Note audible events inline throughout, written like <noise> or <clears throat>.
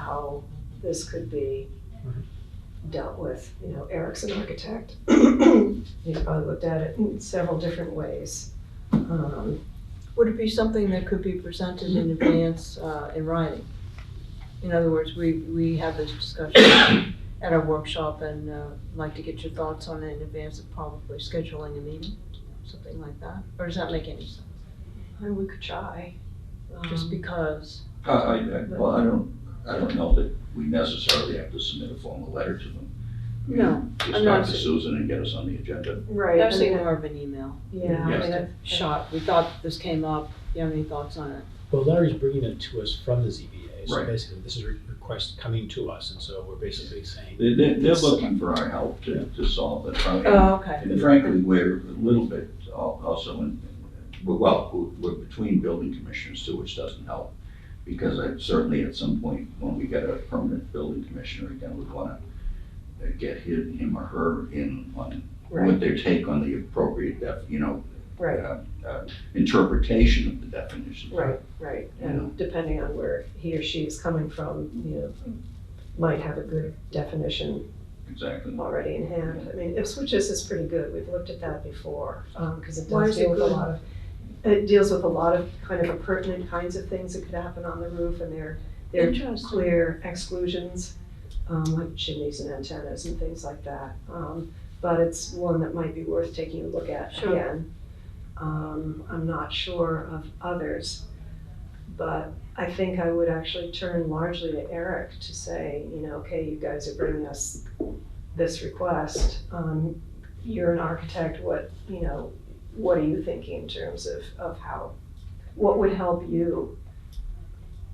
how this could be dealt with. You know, Eric's an architect. <clears throat> He's probably looked at it in several different ways. Um, Would it be something that could be presented in advance uh, in writing? In other words, we, we have this discussion at our workshop and uh, like to get your thoughts on it in advance of probably scheduling a meeting, something like that? Or does that make any sense? And we could try. Um, Just because, I, I, I- well, I don't, I don't know that we necessarily have to submit a formal letter to them. no, Just I'm talk not, to Susan and get us on the agenda. Right. I've seen and- more of an email. Yeah. I Yes. mean, I- Shot, we thought this came up, you have any thoughts on it? Well, Larry's bringing it to us from the ZBA, so Right. basically, this is a request coming to us, and so we're basically saying, They, they, they're looking for our help to, to solve the problem. Oh, okay. And frankly, we're a little bit al- also in, we're- well, we're- we're between building commissioners too, which doesn't help. Because I certainly at some point, when we get a permanent building commissioner, again, we wanna uh, get him, him or her in on Right, what their take on the appropriate def, you know, right, uh, uh, interpretation of the definition. right, right. Yeah. And depending on where he or she is coming from, you know, might have a good definition Exactly. already in hand. I mean, Ipswich's is pretty good, we've looked at that before, because it Why does is it deal with a good? lot of, it deals with a lot of kind of pertinent kinds of things that could happen on the roof, and there, there are Interesting. clear exclusions, um, like chimneys and antennas and things like that. Um, But it's one that might be worth taking a look at Sure. again. Um, I'm not sure of others, but I think I would actually turn largely to Eric to say, you know, okay, you guys are bringing us this request. Um, you're an architect, what, you know, what are you thinking in terms of, of how, what would help you?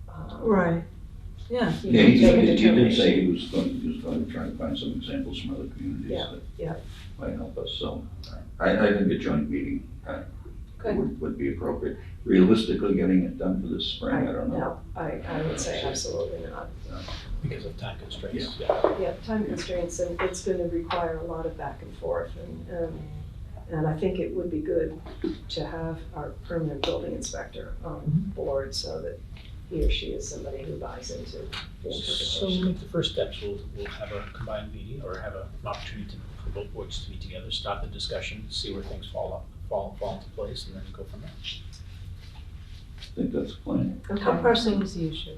um, Right, yeah, You Yeah, he can make a did, he did determination. say he was going, he was going to try to find some examples from other communities Yeah, that yeah. might help us, so uh, I, I think a joint meeting uh, Good. would, would be appropriate. Realistically, getting it done for this spring, I don't know. No, I, I would say absolutely not. because of time constraints, yeah. Yeah, time constraints, and it's gonna require a lot of back and forth, and, um, and I think it would be good to have our permanent building inspector Mm-hmm. on board so that he or she is somebody who buys into the So we'll interpretation. make the first steps, we'll, we'll have a combined meeting, or have a- an opportunity to- for both boards to meet together, start the discussion, see where things fall up, fall, fall into place, and then go from there. I think that's the plan. how Okay, pressing is the issue?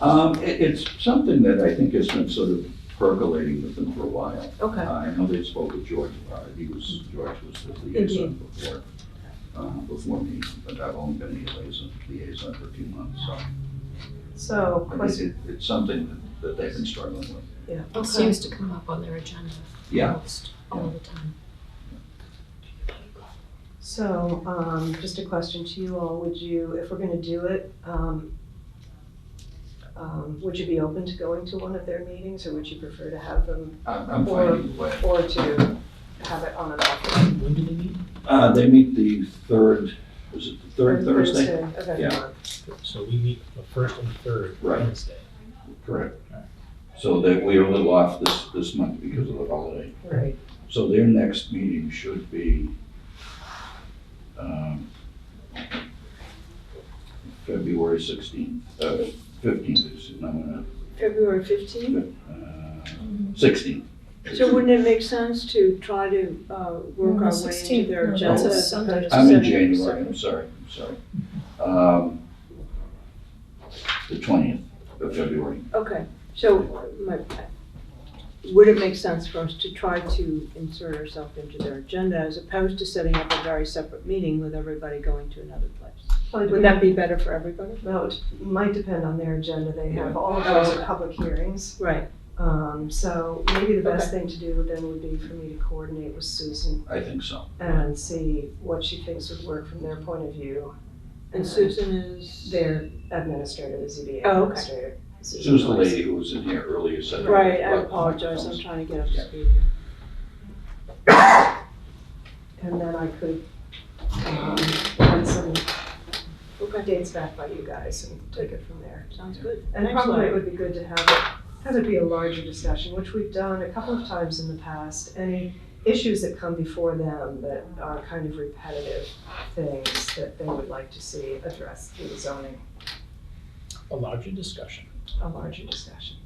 Um, it, it's something that I think has been sort of percolating with them for a while. Okay. Uh, I know they spoke with George, uh, he was, George was the liaison before, uh, before me, but I've only been the liaison, liaison for a few months, so. so, I think question, it, it's something that- that they've been struggling with. yeah, It okay, seems to come up on their agenda Yeah, almost all the time. so, um, just a question to you all, would you, if we're gonna do it, um, um, would you be open to going to one of their meetings, or would you prefer to have them, I'm, I'm finding a way. or to have it on and off? When do they meet? Uh, they meet the third, is it the third Thursday? Of every Yeah. month. So we meet the first and third Right. Wednesday. Correct. So that we are a little off this, this month because of the holiday. Right, So their next meeting should be, um, February sixteenth, uh, fifteenth, is, no, no, February fifteenth? uh, sixteenth. So wouldn't it make sense to try to uh, No, work the our way into 16th, their no, agenda? that's a as opposed Sunday. to I'm in setting it January, separate? I'm sorry, I'm sorry. Um, the twentieth of February. Okay, so my, would it make sense for us to try to insert ourselves into their agenda as opposed to setting up a very separate meeting with everybody going to another place? Well, Would that be better for everybody? No, it might depend on their agenda, they have, all of Yeah. those Oh, are okay. public hearings. Right, Um, so maybe the best thing to do then would be for me to coordinate with Susan I think so. and see what she thinks would work from their point of view. and Susan is? Their administrator, the ZBA Oh, okay. administrator. Susan's the Weiss. lady who was in here earlier said. Right, I apologize, I'm trying to get up to speed here. And then I could, um, find some Okay, dates back by you guys and take it from there. sounds good. And Thanks, probably it Larry. would be good to have it, have it be a larger discussion, which we've done a couple of times in the past. Any issues that come before them that are kind of repetitive things that they would like to see addressed through the zoning. A larger discussion. a larger discussion.